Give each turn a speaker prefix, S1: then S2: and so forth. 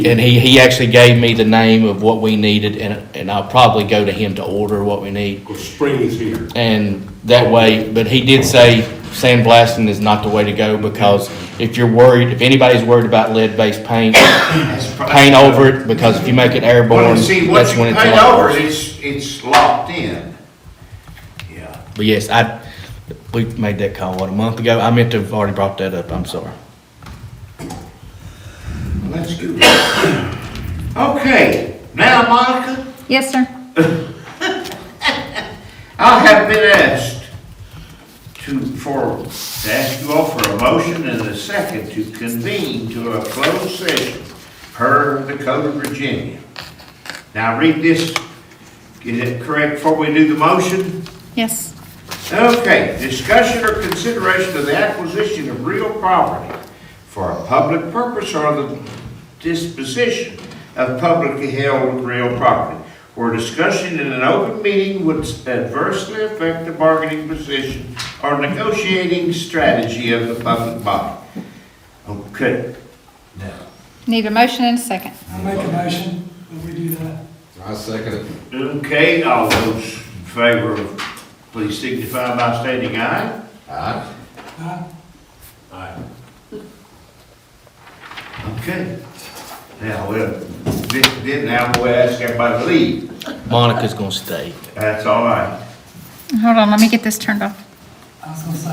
S1: And he, he actually gave me the name of what we needed, and, and I'll probably go to him to order what we need.
S2: Because spring is here.
S1: And that way, but he did say sandblasting is not the way to go, because if you're worried, if anybody's worried about lead-based paint, paint over it, because if you make it
S3: Well,
S1: airborne,
S3: and see, once
S1: that's
S3: you
S1: when it's
S3: paint
S1: liable.
S3: over, it, it's, it's locked in. Yeah.
S1: But yes, I, we made that call, what, a month ago? I meant to have already brought that up, I'm sorry.
S3: Let's do it. Okay, now Monica,
S4: Yes, sir.
S3: I have been asked to, for, to ask you all for a motion and a second to convene to a closed session per the Code of Virginia. Now read this, is it correct before we do the motion?
S4: Yes.
S3: Okay, discussion or consideration of the acquisition of real property for a public purpose or the disposition of publicly held real property, where discussion in an open meeting would adversely affect the bargaining position or negotiating strategy of the public body. Okay,
S4: Need a motion and a second.
S5: I make a motion that we do that.
S6: I second it.
S3: okay, all those in favor, of- please signify by stating aye.
S6: Aye.
S5: Aye.
S3: Okay. Now, well, then, then now we'll ask everybody to leave.
S1: Monica's gonna stay.
S3: That's all right.
S4: Hold on, let me get this turned off.
S5: I was gonna say,